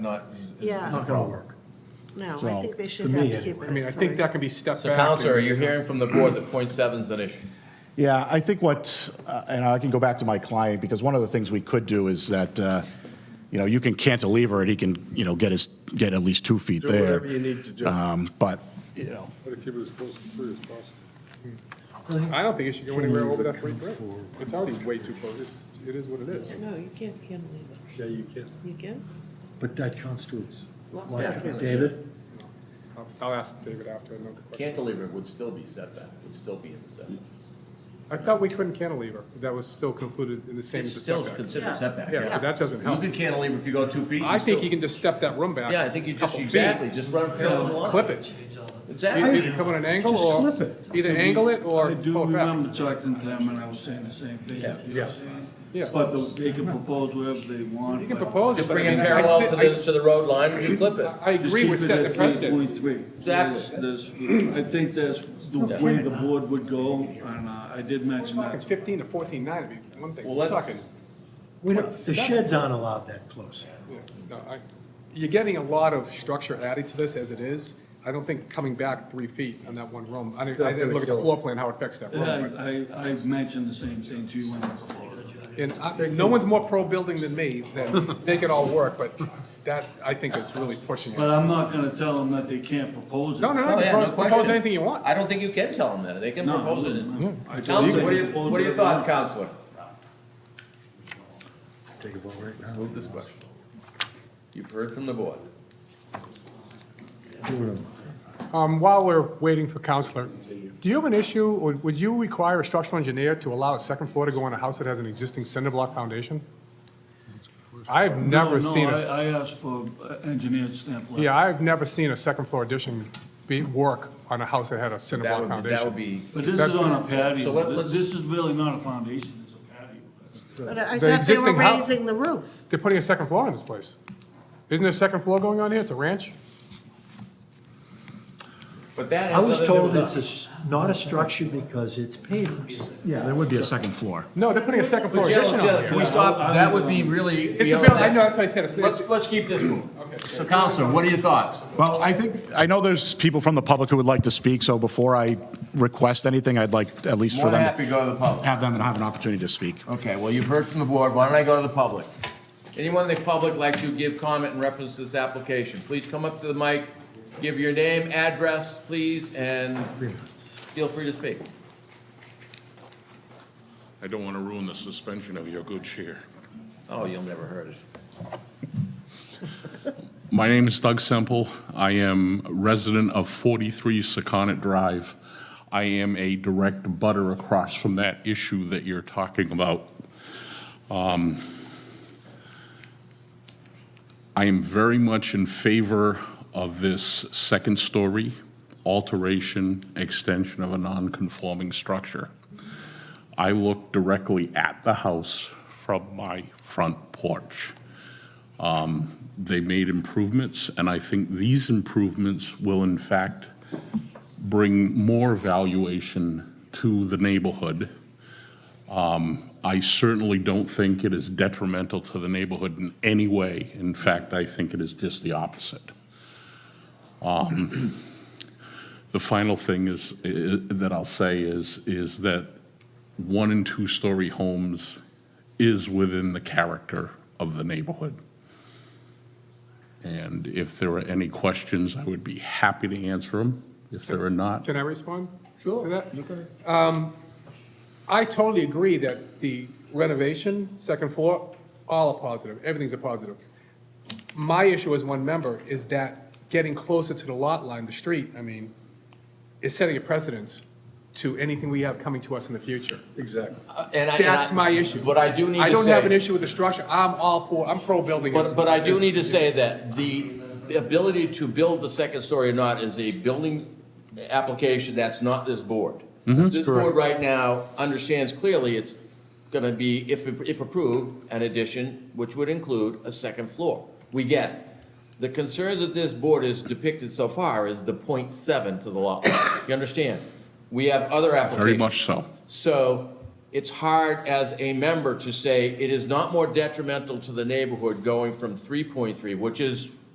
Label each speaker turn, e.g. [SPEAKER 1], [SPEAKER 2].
[SPEAKER 1] not.
[SPEAKER 2] Yeah,
[SPEAKER 3] Not gonna work.
[SPEAKER 2] no, I
[SPEAKER 3] So,
[SPEAKER 2] think they should
[SPEAKER 3] to
[SPEAKER 2] have
[SPEAKER 3] me,
[SPEAKER 2] to keep it.
[SPEAKER 3] anyway.
[SPEAKER 4] I mean, I think that can be stepped
[SPEAKER 5] So
[SPEAKER 4] back.
[SPEAKER 5] Counselor, are
[SPEAKER 4] and-
[SPEAKER 5] you hearing from the board that point seven's an issue?
[SPEAKER 3] Yeah, I think what, uh, and I can go back to my client, because one of the things we could do is that, uh, you know, you can cantilever it, he can, you know, get his, get at least two feet
[SPEAKER 6] Do
[SPEAKER 3] there.
[SPEAKER 6] whatever you need to do.
[SPEAKER 3] Um, But, you know,
[SPEAKER 6] Try to keep it as close to three as possible.
[SPEAKER 4] I don't think it should go anywhere over that three foot. It's already way too close. It's, it is what it is.
[SPEAKER 2] No, you can't cantilever.
[SPEAKER 6] Yeah, you can.
[SPEAKER 2] You can?
[SPEAKER 7] But that constitutes,
[SPEAKER 2] Lot
[SPEAKER 7] like,
[SPEAKER 5] coverage.
[SPEAKER 7] David,
[SPEAKER 4] I'll- I'll ask David after another question.
[SPEAKER 5] Cantilever would still be setback, would still be in the setback.
[SPEAKER 4] I thought we couldn't cantilever. That was still concluded in the same
[SPEAKER 5] It's
[SPEAKER 4] as the
[SPEAKER 5] still
[SPEAKER 4] setback.
[SPEAKER 5] considered setback,
[SPEAKER 4] Yeah, so
[SPEAKER 5] yeah.
[SPEAKER 4] that doesn't
[SPEAKER 5] You
[SPEAKER 4] help.
[SPEAKER 5] can cantilever if you go two feet.
[SPEAKER 4] I think
[SPEAKER 5] still-
[SPEAKER 4] you can just step that room back.
[SPEAKER 5] Yeah, I think you
[SPEAKER 4] a
[SPEAKER 5] just,
[SPEAKER 4] couple feet,
[SPEAKER 5] exactly, just run parallel to the line.
[SPEAKER 4] Clip it. Either
[SPEAKER 5] Exactly.
[SPEAKER 4] either come on an angle
[SPEAKER 7] Just
[SPEAKER 4] or,
[SPEAKER 7] clip it.
[SPEAKER 4] either angle it or
[SPEAKER 8] I do
[SPEAKER 4] pull it back.
[SPEAKER 8] remember talking to them, and I was saying the same thing.
[SPEAKER 5] Yeah.
[SPEAKER 8] you know what I'm saying?
[SPEAKER 4] Yeah.
[SPEAKER 8] But the- they can propose whatever they want.
[SPEAKER 4] You can propose it,
[SPEAKER 5] Just
[SPEAKER 4] but I
[SPEAKER 5] bring it
[SPEAKER 4] mean, I
[SPEAKER 5] parallel
[SPEAKER 4] thi-
[SPEAKER 5] to
[SPEAKER 4] I-
[SPEAKER 5] the, to the road line and you clip it.
[SPEAKER 4] I agree with setting the precedence.
[SPEAKER 5] Exactly.
[SPEAKER 8] I think that's the way the board would go, and uh, I did mention
[SPEAKER 4] Talking
[SPEAKER 8] that.
[SPEAKER 4] fifteen to fourteen nine, I mean, one thing.
[SPEAKER 5] Well,
[SPEAKER 4] We're
[SPEAKER 5] let's-
[SPEAKER 4] talking,
[SPEAKER 7] we don't, the sheds aren't allowed that close.
[SPEAKER 4] yeah, no, I, you're getting a lot of structure added to this as it is. I don't think coming back three feet on that one room, I didn't, I didn't look at the floor plan, how it affects that room. but-
[SPEAKER 8] I, I, I mentioned the same thing to you when I proposed.
[SPEAKER 4] And I- no one's more pro-building than me, that make it all work, but that, I think, is really pushing
[SPEAKER 8] But
[SPEAKER 4] it.
[SPEAKER 8] I'm not gonna tell them that they can't propose it.
[SPEAKER 4] No, no,
[SPEAKER 5] Oh,
[SPEAKER 4] no,
[SPEAKER 5] yeah, no
[SPEAKER 4] propose, propose
[SPEAKER 5] question.
[SPEAKER 4] anything you want.
[SPEAKER 5] I don't think you can tell them that, they can
[SPEAKER 8] No,
[SPEAKER 5] propose it.
[SPEAKER 8] no. I told
[SPEAKER 5] Counselor,
[SPEAKER 8] you
[SPEAKER 5] what are your,
[SPEAKER 8] they can
[SPEAKER 5] what are your
[SPEAKER 8] propose
[SPEAKER 5] thoughts,
[SPEAKER 8] it.
[SPEAKER 5] Counselor?
[SPEAKER 7] Take a vote right now.
[SPEAKER 5] Move this question. You've heard from the board.
[SPEAKER 4] Um, while we're waiting for Counselor, do you have an issue, or would you require a structural engineer to allow a second floor to go on a house that has an existing cinder block foundation? I've never
[SPEAKER 8] No,
[SPEAKER 4] seen a,
[SPEAKER 8] I,
[SPEAKER 4] s-
[SPEAKER 8] I asked for uh, engineered stamp letter.
[SPEAKER 4] yeah, I've never seen a second floor addition be, work on a house that had a cinder
[SPEAKER 5] That
[SPEAKER 4] block
[SPEAKER 5] would, that would
[SPEAKER 4] foundation.
[SPEAKER 5] be,
[SPEAKER 8] But this is on a
[SPEAKER 5] So let-
[SPEAKER 8] patio,
[SPEAKER 5] let's-
[SPEAKER 8] this is really not a foundation, it's a patio.
[SPEAKER 2] But I
[SPEAKER 4] The
[SPEAKER 2] thought they were
[SPEAKER 4] existing house-
[SPEAKER 2] raising the roof.
[SPEAKER 4] They're putting a second floor in this place. Isn't there a second floor going on here? It's a ranch?
[SPEAKER 5] but that
[SPEAKER 7] I
[SPEAKER 5] has nothing
[SPEAKER 7] was
[SPEAKER 5] to do
[SPEAKER 7] told
[SPEAKER 5] with
[SPEAKER 7] it's a
[SPEAKER 5] us.
[SPEAKER 7] s not a structure because it's pavers.
[SPEAKER 3] yeah, there would be a second floor.
[SPEAKER 4] No, they're putting a second floor
[SPEAKER 5] But Jill,
[SPEAKER 4] addition on
[SPEAKER 5] Jill,
[SPEAKER 4] here.
[SPEAKER 5] can we stop, that would be really.
[SPEAKER 4] It's a
[SPEAKER 5] beyond
[SPEAKER 4] bill, I
[SPEAKER 5] that.
[SPEAKER 4] know, that's what I said, it's,
[SPEAKER 5] Let's,
[SPEAKER 4] it's,
[SPEAKER 5] let's keep this moving. So Counselor, what are your thoughts?
[SPEAKER 3] Well, I think, I know there's people from the public who would like to speak, so before I request anything, I'd like at least for
[SPEAKER 5] More than
[SPEAKER 3] them,
[SPEAKER 5] happy to go to the public.
[SPEAKER 3] have them have an opportunity to speak.
[SPEAKER 5] Okay, well, you've heard from the board, why don't I go to the public? Anyone in the public like to give comment in reference to this application, please come up to the mic, give your name, address, please, and feel free to speak.
[SPEAKER 9] I don't want to ruin the suspension of your good cheer.
[SPEAKER 5] Oh, you'll never heard it.
[SPEAKER 9] My name is Doug Semple. I am a resident of 43 Secana Drive. I am a direct butter across from that issue that you're talking about. Um, I am very much in favor of this second-story alteration, extension of a non-conforming structure. I look directly at the house from my front porch. Um, They made improvements, and I think these improvements will in fact bring more valuation to the neighborhood. Um, I certainly don't think it is detrimental to the neighborhood in any way. In fact, I think it is just the opposite. Um, The final thing is, i- that I'll say is, is that one and two-story homes is within the character of the neighborhood. And if there are any questions, I would be happy to answer them. If there are not,
[SPEAKER 4] can I respond? Sure. To that? Um, I totally agree that the renovation, second floor, all are positive, everything's a positive. My issue as one member is that getting closer to the lot line, the street, I mean, is setting a precedence to anything we have coming to us in the future.
[SPEAKER 6] Exactly.
[SPEAKER 5] And I- and I-
[SPEAKER 4] That's my issue.
[SPEAKER 5] But I do need to say.
[SPEAKER 4] I don't have an issue with the structure, I'm all for, I'm pro-building.
[SPEAKER 5] But, but I do need to say that the the ability to build the second story or not is a building application that's not this board. This board right now understands clearly it's gonna be, if, if approved, an addition, which would include a second floor. We get it. The concerns that this board has depicted so far is the point seven to the lot. line. You understand? We have other applications.
[SPEAKER 9] very much so.
[SPEAKER 5] So it's hard as a member to say it is not more detrimental to the neighborhood going from 3.3, which is